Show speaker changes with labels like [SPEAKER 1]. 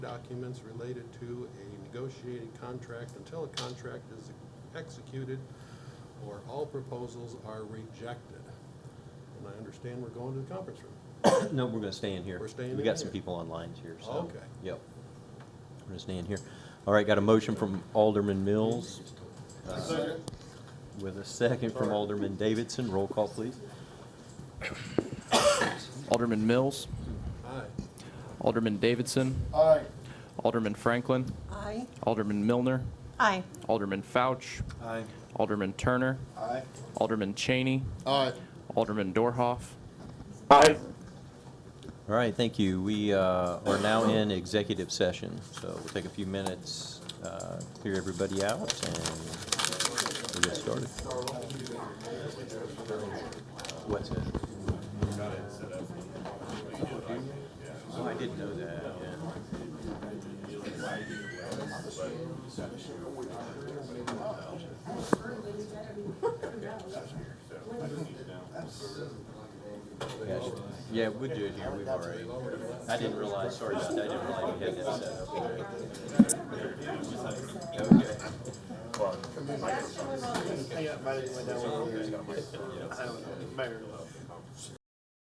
[SPEAKER 1] documents related to a negotiated contract until a contract is executed or all proposals are rejected. And I understand we're going to the conference room.
[SPEAKER 2] No, we're gonna stay in here.
[SPEAKER 1] We're staying
[SPEAKER 2] We
[SPEAKER 1] in
[SPEAKER 2] got some
[SPEAKER 1] here.
[SPEAKER 2] people online here, so.
[SPEAKER 1] Okay.
[SPEAKER 2] Yep. We're gonna stay in here. All right, got a motion from Alderman Mills. uh, With a second from Alderman Davidson. Roll call, please.
[SPEAKER 3] Alderman Mills,
[SPEAKER 1] Aye.
[SPEAKER 3] Alderman Davidson,
[SPEAKER 4] Aye.
[SPEAKER 3] Alderman Franklin,
[SPEAKER 5] Aye.
[SPEAKER 3] Alderman Milner,
[SPEAKER 5] Aye.
[SPEAKER 3] Alderman Fouch,
[SPEAKER 2] Aye.
[SPEAKER 3] Alderman Turner,
[SPEAKER 4] Aye.
[SPEAKER 3] Alderman Cheney,
[SPEAKER 4] Aye.
[SPEAKER 3] Alderman Dorhoff.
[SPEAKER 2] All right, thank you. We uh, are now in executive session, so we'll take a few minutes, uh, clear everybody out, and we'll get started. What's it? Oh, I didn't know that, yeah. Yeah, sh- Yeah, we do it here, we've already, I didn't realize, sorry about that, I didn't realize we had that set up. Okay.
[SPEAKER 4] Hang up, might have went down one of yours. I don't know. Mayor.